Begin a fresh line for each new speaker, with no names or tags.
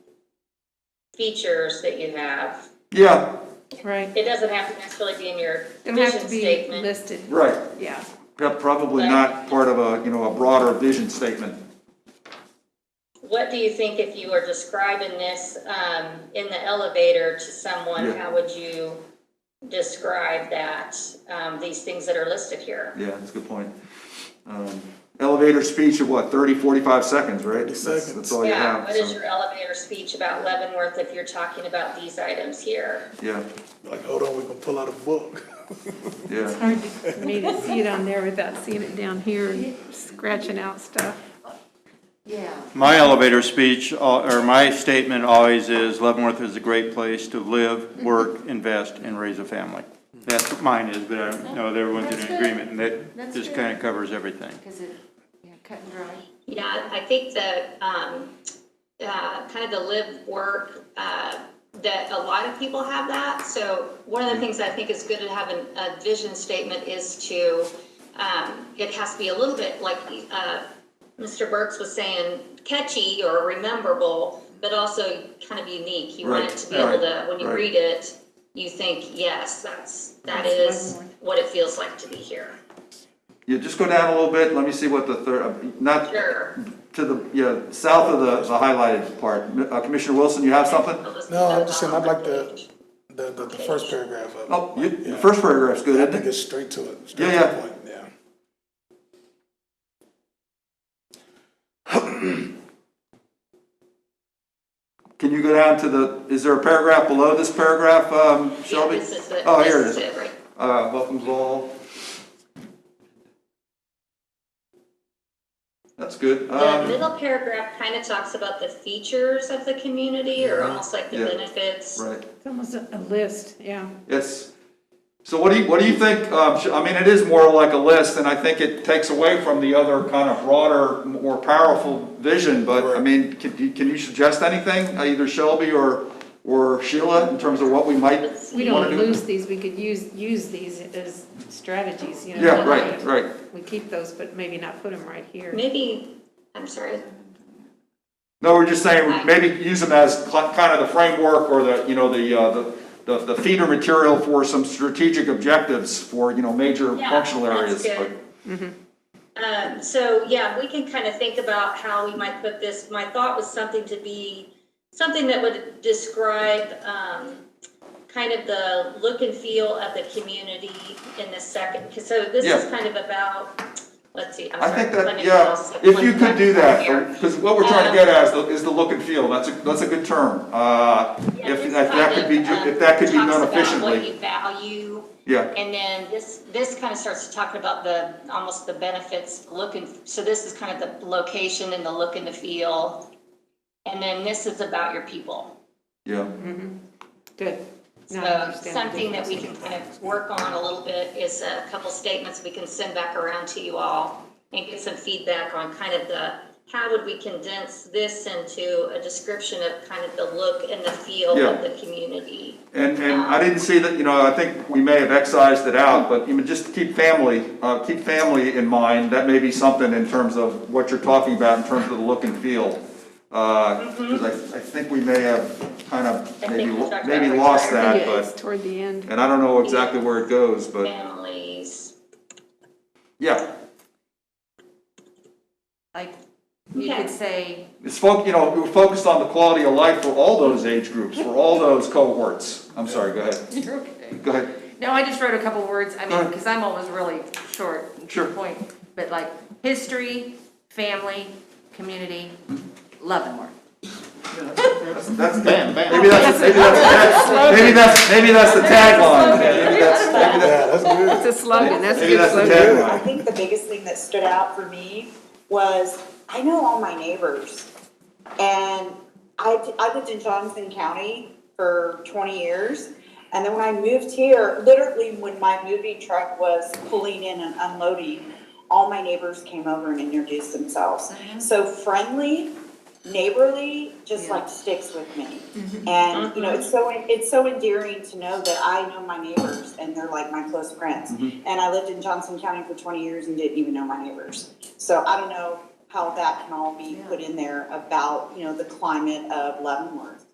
features that you have.
Yeah,
Right,
It doesn't have to necessarily be in your
don't have
vision
to be
statement.
listed,
right,
yeah.
Yeah, probably not part of a, you know, a broader vision statement.
What do you think if you were describing this, um, in the elevator to someone,
Yeah.
how would you describe that, um, these things that are listed here?
Yeah, that's a good point. Um, Elevator speech of what, 30, 45 seconds, right? That's-
seconds.
That's all you
Yeah,
have,
what is
Oh, so,
your elevator speech about Leavenworth if you're talking about these items here?
yeah,
Like, hold on, we gonna pull out a book.
yeah.
Hard for me to see it on there without seeing it down here and scratching out stuff.
Yeah.
My elevator speech, uh, or my statement always is Leavenworth is a great place to live, work, invest, and raise a family. That's what mine is, but I don't know that everyone's
That's
in
good.
agreement, and that
That's
just
good.
kind of covers everything.
Because it, yeah, cut and dry.
Yeah, I think the, um, uh, kind of the live work, uh, that a lot of people have that. So one of the things I think is good to have an, a vision statement is to, um, it has to be a little bit like, uh, Mr. Burks was saying catchy or rememberable, but also kind of unique. You want it
Right,
to be able to,
right,
when you
right.
read it, you think, yes, that's, that is what it feels like to be here.
Yeah, just go down a little bit, let me see what the third, uh, not
Sure.
to the, yeah, south of the the highlighted part. Uh, Commissioner Wilson, you have something?
No, I'm just saying, I'd like the, the, the, the first paragraph of it.
Oh, you, the
Yeah.
first paragraph's good,
I
isn't
think
it?
it's straight to it, straight
Yeah,
to
yeah.
the point, yeah.
Can you go down to the, is there a paragraph below this paragraph, um,
Yeah,
Shelby?
this is the,
Oh, here it
this is
is.
it, right?
Uh, welcomes all. That's good.
The
Um,
middle paragraph kind of talks about the features of the community or almost like the
Yeah.
benefits.
right,
It's almost a a list, yeah.
yes. So what do you, what do you think, um, sh- I mean, it is more like a list, and I think it takes away from the other kind of broader, more powerful vision, but, I
Right.
mean, can, you- can you suggest anything, uh, either Shelby or, or Sheila, in terms of what we might wanna do?
We don't lose these, we could use, use these as strategies, you know?
Yeah, right, right.
We keep those, but maybe not put them right here.
Maybe, I'm sorry,
No, we're just saying, maybe use them as cl- kind of the framework or the, you know, the, uh, the- the, the feeder material for some strategic objectives for, you know, major
Yeah,
functional
that's
areas.
good.
like-
Um, so yeah, we can kind of think about how we might put this. My thought was something to be, something that would describe, um, kind of the look and feel of the community in the second, 'cause so this is
Yeah.
kind of about, let's see, I'm
I
sorry.
think
let
that,
me
yeah,
pause
if you
one
could do
second here. Um,
that, because what we're trying to get at is the, is the look and feel, that's a, that's a good term. Uh,
Yeah,
if, if
this
that
kind
could be,
of,
ju-
um,
if that could be done
Talks about what
efficiently,
you value,
yeah,
and then this, this kind of starts to talk about the, almost the benefits, looking, so this is kind of the location and the look and the feel. And then this is about your people.
yeah.
Good. Now I
So
understand the
something that we
difference.
can kind of work on a little bit is a couple statements we can send back around to you all and get some feedback on kind of the, how would we condense this into a description of kind of the look and the feel
Yeah.
of the community?
And, and I didn't see that, you know, I think we may have excised it out, but even just keep family, uh, keep family in mind, that may be something in terms of what you're talking about in terms of the look and feel. Uh 'cause cause I, I think we may have kind of
I
maybe,
think we talked
maybe
about
lost
Yeah,
that,
it's
but,
toward the end.
and I don't know exactly where it goes, but,
Families.
yeah.
Like, you
Okay.
could say,
It's fo, you know, we're focused on the quality of life for all those age groups, for all those cohorts. I'm sorry, go ahead,
you're okay.
go ahead.
No, I just wrote a couple words, I mean,
Alright.
because I'm always really short. and to
Sure.
the Point, but like, history, family, community, love and work.
That's, that's, maybe that's, maybe that's, maybe that's, maybe that's the tagline, maybe that's, maybe that's.
Yeah, that's good.
It's a slogan, that's a
Maybe
good
that's the
slogan.
I
tagline.
think the biggest thing that stood out for me was I know all my neighbors. And I, I lived in Johnson County for 20 years. And then when I moved here, literally when my moving truck was pulling in and unloading, all my neighbors came over and introduced themselves. So friendly, neighborly, just
Yeah.
like sticks with me. And, you know, it's so, it's so endearing to know that I know my neighbors and they're like my close friends. And I lived in Johnson County for twenty years and didn't even know my neighbors. So I don't know how that can all be put in there about, you know, the climate of Leavenworth.